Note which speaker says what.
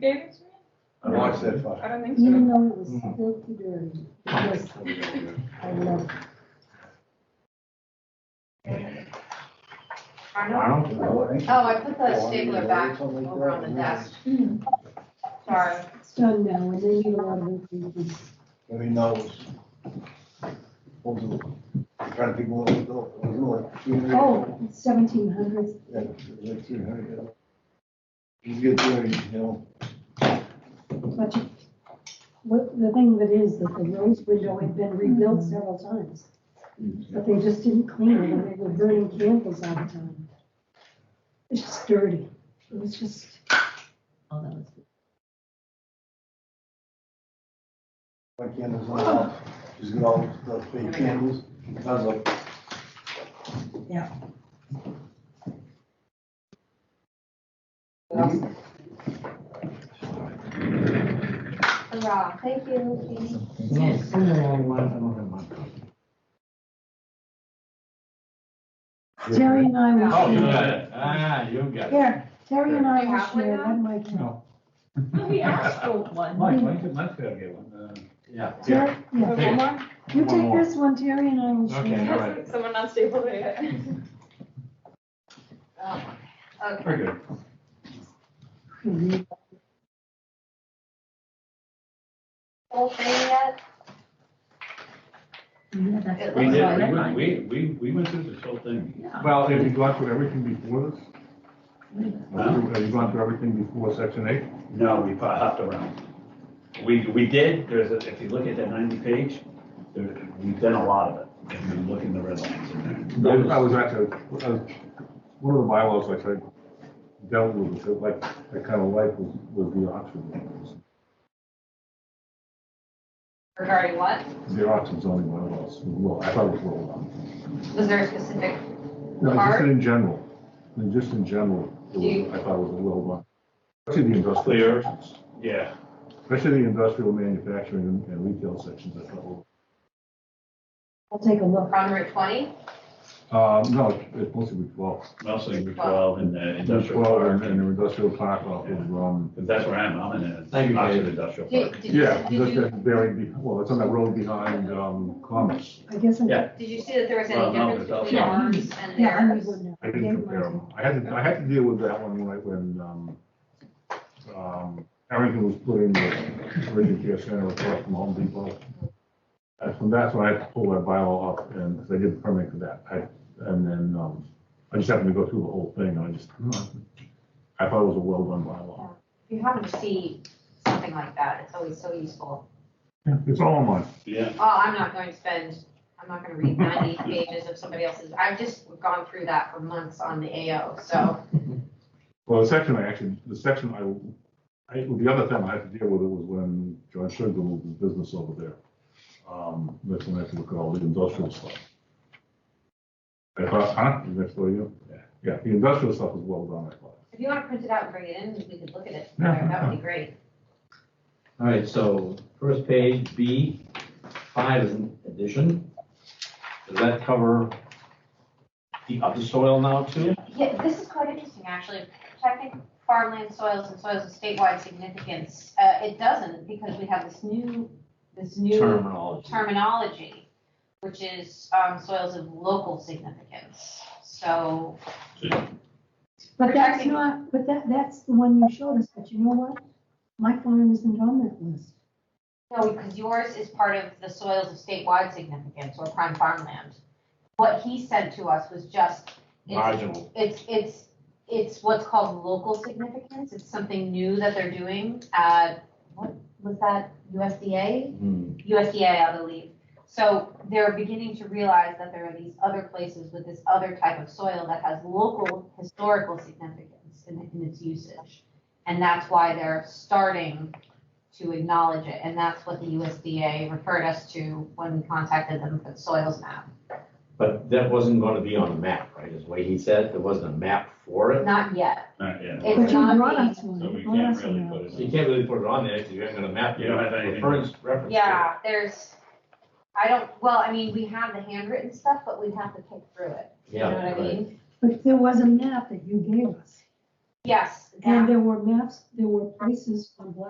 Speaker 1: David Smith?
Speaker 2: I watched that fight.
Speaker 1: I don't think
Speaker 3: You
Speaker 1: so.
Speaker 3: know, it was
Speaker 4: Mm-hmm.
Speaker 2: Mhm.
Speaker 3: filthy dirty. Yes, I love it.
Speaker 2: I don't know.
Speaker 5: Oh, I put the stapler back over on the desk. Sorry.
Speaker 3: It's done now, and then you love it. you just-
Speaker 2: I mean, that was, what was it? I'm trying to think what it was, it was like two hundred.
Speaker 3: Oh, seventeen hundreds.
Speaker 2: Yeah, it was like two hundred, yeah. You get there, you know,
Speaker 3: But you- what, the thing that is, that the rose window had been rebuilt
Speaker 4: Mm-hmm.
Speaker 3: several times, but they just didn't clean it, and they were burning candles all the time. It's just dirty, it was just, oh, that was,
Speaker 2: my candles went off,
Speaker 5: Oh.
Speaker 2: just got all the fake candles. I was like, Mm-hmm.
Speaker 5: Hurrah, thank you, Katie.
Speaker 3: Terry and I
Speaker 5: Oh,
Speaker 4: Oh,
Speaker 3: will
Speaker 4: you
Speaker 3: share.
Speaker 4: got it. Ah, you got it.
Speaker 3: Here, Terry and I
Speaker 1: You
Speaker 3: will
Speaker 1: have one
Speaker 3: share,
Speaker 1: now?
Speaker 3: that might count.
Speaker 1: He asked for one.
Speaker 4: Mike, Mike, Mike's gotta get one. uh, Yeah.
Speaker 3: Terry, yeah,
Speaker 1: One more?
Speaker 3: you
Speaker 4: One
Speaker 3: take
Speaker 4: more.
Speaker 3: this one, Terry and I will share.
Speaker 4: Okay. All right.
Speaker 1: Someone not stable yet.
Speaker 5: Oh, Okay.
Speaker 4: Very good.
Speaker 3: Mhm.
Speaker 5: Whole thing yet? It
Speaker 4: We
Speaker 5: looks
Speaker 4: did, we
Speaker 5: like-
Speaker 4: went- we, we, we went through this whole thing.
Speaker 6: Well, have you gone through everything before this?
Speaker 4: Huh?
Speaker 6: Have you gone through everything before section eight?
Speaker 4: No, we pa- hopped around. We, we did, there's, a- if you look at that ninety page, there, we've done a lot of it. And we look in the red lines in
Speaker 6: I
Speaker 4: there.
Speaker 6: was- I was actually, I was- one of the bylaws which I dealt with, was like, that kind of life was, was the auction.
Speaker 5: Regarding what?
Speaker 6: The auction's only one of those, well, I thought it was well.
Speaker 5: Was there a specific,
Speaker 6: No, just
Speaker 5: Art?
Speaker 6: in general, I mean, just in general, it was- I thought it was a well run. Especially the
Speaker 4: Clear.
Speaker 6: industrial sections,
Speaker 4: Yeah,
Speaker 6: especially the industrial manufacturing and- and retail sections, I thought. were-
Speaker 3: I'll take a look.
Speaker 5: on Route 20?
Speaker 6: Um, no, it- it's mostly with twelve.
Speaker 4: mostly Route twelve and the industrial
Speaker 6: Well,
Speaker 4: park.
Speaker 6: and and the industrial park off of, um,
Speaker 4: Because that's where I'm, I'm in a,
Speaker 7: Thank you,
Speaker 4: Oxford
Speaker 7: Dave.
Speaker 4: industrial
Speaker 5: Did,
Speaker 4: park.
Speaker 5: did you,
Speaker 6: yeah,
Speaker 5: did
Speaker 6: just
Speaker 5: you,
Speaker 6: that very, be- well, it's on that road behind, um, Commerce.
Speaker 3: I guess I'm.
Speaker 4: Yeah.
Speaker 5: did you see that there was any
Speaker 4: Well, no,
Speaker 5: difference
Speaker 4: it's
Speaker 5: between
Speaker 4: also-
Speaker 5: ours and
Speaker 3: Yeah, I
Speaker 5: theirs?
Speaker 3: need one now.
Speaker 6: I didn't
Speaker 3: Gave
Speaker 6: compare
Speaker 3: mine.
Speaker 6: them. I had to, I had to deal with that one when, I- when, um, um, Harrington was putting the Meridian Care Center across from Home Depot. That's when, that's when I pulled that bylaw up and, because I did the permit for that. I, and then, um, I just happened to go through the whole thing and I just, I thought it was a well-run bylaw.
Speaker 5: If you happen to see something like that, it's always so useful.
Speaker 6: It's all mine.
Speaker 4: Yeah,
Speaker 5: Oh, I'm not going to spend, I'm not going to read 90 pages of somebody else's. I've just gone through that for months on the AO, so.
Speaker 6: Well, the section I actually, the section I, I, the other thing I had to deal with it was when John Sugar moved his business over there. Um, that's when I had to look at all the industrial stuff. I thought, huh, is that for you?
Speaker 4: Yeah.
Speaker 6: Yeah, the industrial stuff is well done, I thought.
Speaker 5: If you want to print it out and bring it in, we could look at it.
Speaker 6: Yeah.
Speaker 5: That would be great.
Speaker 7: All right, so first page, B, five is an addition. Does that cover the upper soil now too?
Speaker 5: Yeah, this is quite interesting, actually. Protecting farmland soils and soils of statewide significance. Uh, it doesn't because we have this new, this new
Speaker 7: Terminology.
Speaker 5: terminology, which is, um, soils of local significance. So,
Speaker 3: But that's
Speaker 5: Protecting-
Speaker 3: not, but that, that's the one you showed us, but you know what? My farm isn't on that list.
Speaker 5: no, because yours is part of the soils of statewide significance or prime farmland. What he sent to us was just, it's
Speaker 7: Marginal.
Speaker 5: It's, it's, it's what's called local significance. It's something new that they're doing. Uh, what was that? USDA?
Speaker 7: Hmm.
Speaker 5: USDA, I believe. So they're beginning to realize that there are these other places with this other type of soil that has local historical significance in, in its usage. And that's why they're starting to acknowledge it. And that's what the USDA referred us to when we contacted them for the soils map.
Speaker 7: But that wasn't going to be on a map, right? Is what he said, there wasn't a map for it.
Speaker 5: Not yet.
Speaker 4: not yet.
Speaker 5: It's
Speaker 3: But you
Speaker 5: not
Speaker 3: brought
Speaker 5: me.
Speaker 3: us one.
Speaker 4: So we
Speaker 3: you brought
Speaker 4: can't
Speaker 3: us
Speaker 4: really
Speaker 3: one.
Speaker 4: put it
Speaker 7: So
Speaker 4: in.
Speaker 7: You can't really put it on there because you haven't got a map.
Speaker 4: You don't have anything.
Speaker 7: Reference, reference. to.
Speaker 5: Yeah, there's, I don't, well, I mean, we have the handwritten stuff, but we'd have to pick through it. You know
Speaker 7: Yeah.
Speaker 5: what I
Speaker 7: right.
Speaker 5: mean?
Speaker 3: But there was a map that you gave us.
Speaker 5: Yes. that-
Speaker 3: And there were maps, there were places on Black